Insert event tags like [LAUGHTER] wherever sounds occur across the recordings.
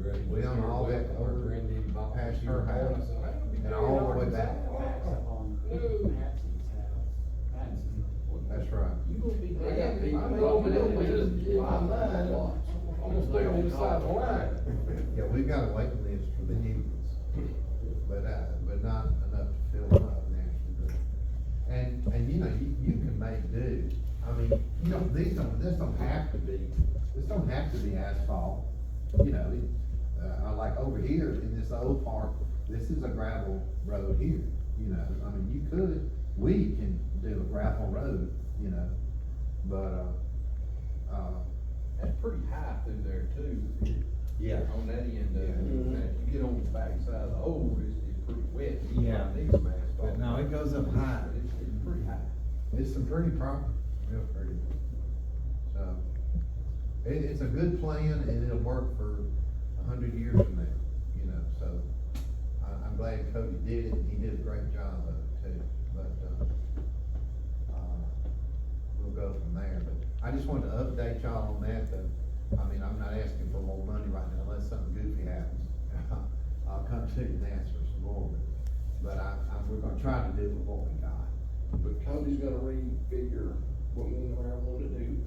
graduates. We done Her all that wet- Her over granddaddy bought past us your her house. house. And all the way back. That's right. You gonna be. They got people rolling over just getting my mind. I'm gonna stay on the side of the line. Yeah, we've got a waiting list for the humans, but, uh, but not enough to fill them up naturally. And, and you know, you, you can make do, I mean, you know, these don't, this don't have to be, this don't have to be asphalt. You know, it, uh, I like over here in this old park, this is a gravel road here, you know, I mean, you could, we can do a gravel road, you know, but, uh, uh, That's pretty high through there too, yeah. on that end of it. If you get on the backside of the hole, it's, it's pretty wet. You Yeah. might Need some asphalt. But no, it goes up high. But It's, it's pretty high. It's some pretty property, real pretty. So, it, it's a good plan and it'll work for a hundred years from now, you know, so. I, I'm glad Cody did it, and he did a great job of it too, but, uh, uh, we'll go from there, but I just wanted to update y'all on that, though. I mean, I'm not asking for more money right now unless something goofy happens. [LAUGHS] I'll come to you and ask for some more, but I, I, we're gonna try to do with what we got. But Cody's gonna refigure what we and I want to do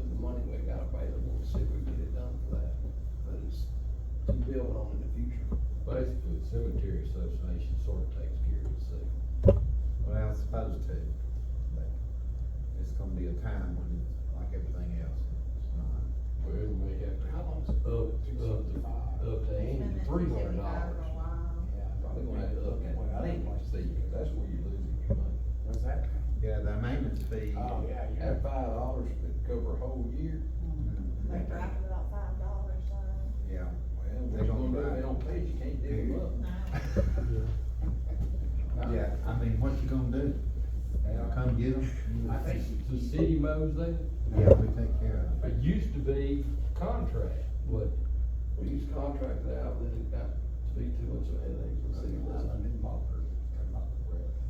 with the money we got available, and see if we can get it done for that. But it's to build on in the future. Basically, the cemetery association sort of takes care of itself. Well, it's supposed to, but it's gonna be a time when it's like everything else, it's not. Well, Well, we may have to How long's up, up, to- up to Andy, three hundred dollars. Probably gonna have to up that Well, I think- maintenance fee, 'cause that's where you're losing your money. What's that? Yeah, the maintenance fee. Oh, yeah, you're. That five dollars could cover a whole year. Mm-hmm. They drive for about five dollars, so. Yeah. Well, what They you gonna gonna do if drive. they don't pay, it, you can't dig them up. Yeah, I mean, what you gonna do? They'll come get them? Mm-hmm. I think The city mows that, Yeah, we take care of it used to be contract, but We used contract it out, then it got to be too much of a headache for the city. wasn't it?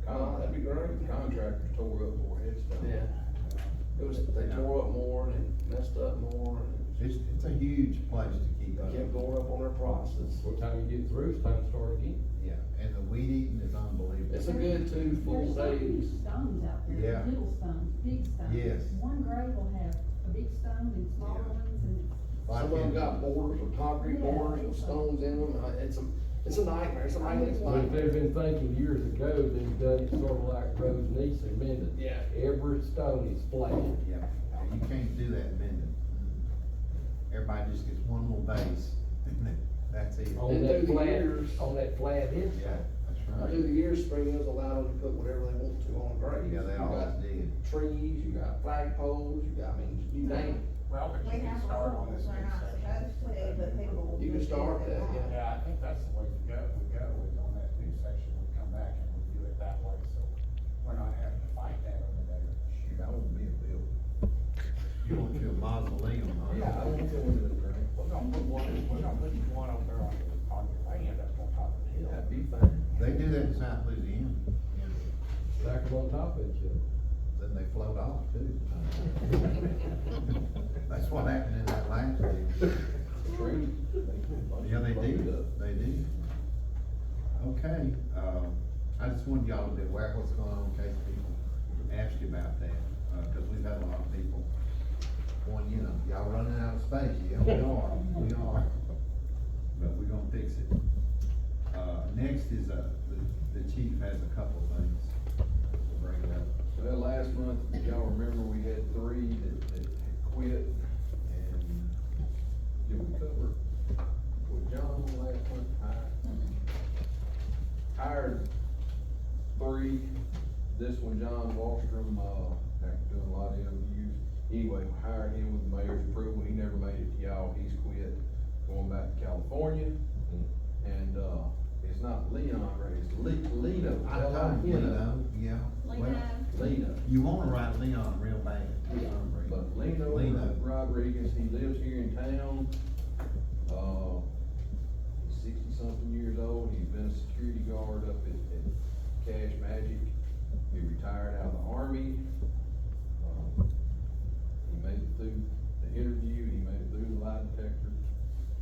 Con- that'd be great. Contractors tore up more headstones. Yeah. It was, they tore up more and it messed up more and it. It's, it's a huge place to keep up. it kept going up on their prices. by the time you get through, it's time to start again. Yeah, and the weed eating is unbelievable. It's a good two full There's so many days. stones out there, Yeah. little stones, big stones. Yes. One grave will have a big stone and smaller Yeah. ones and Like Some of them in- got borders of concrete borders with stones in them, Uh, it's a, it's a nightmare, it's a maintenance But if they've nightmare. been thinking years ago, they've done it sort of like Rose Nice and Mendon. Yeah. Every stone is flat. Yeah, and you can't do that in Minden. Mm-hmm. Everybody just gets one little base, [LAUGHS] and then that's it. Oh. On And that through the flat, years- on that flat Yeah, headstone. that's Through right. the years, Springville's allowed them to put whatever they want to on graves. Yeah, they You always got did. Trees, you got flagpoles, you got, I mean, you name it. Well, but We you can have start on rules, this we're next not section. supposed to, but people will. You can do start it. that, yeah. Yeah, I think that's the way to go, we go is on that new section, we come back and we do it that way, so we're not having to fight that over there. Shoot, I want me a bill. You want your mausoleum, huh? Yeah. I don't feel into the ground. We're gonna put one, we're gonna put one over there on, on your land up on top of the hill. That'd be fine. They do that in South Louisiana, Stack them on top of each other. then they float off too. [LAUGHS] That's what happened in that last deal. Trees. they- Yeah, they Burned do, up. they do. Okay, um, I just wanted y'all to be aware of what's going on in case people ask you about that, uh, cause we've had a lot of people going, you know, y'all running out of space, yeah, [LAUGHS] we are, we are. But we're gonna fix it. Uh, next is, uh, the, the chief has a couple of things to bring up. Well, last month, if y'all remember, we had three that, that had quit, and did we cover with John last month? I Hired three, this one, John Wallstrom, uh, after doing a lot of interviews, anyway, we hired him with the mayor's approval, he never made it to y'all, he's quit, going back to California, and, uh, it's not Leon Ray, it's Le- Lino. I told you, Lino. Lino, yeah, well, Lino, Lino. you wanna write Leon real bad. Uh, Uh,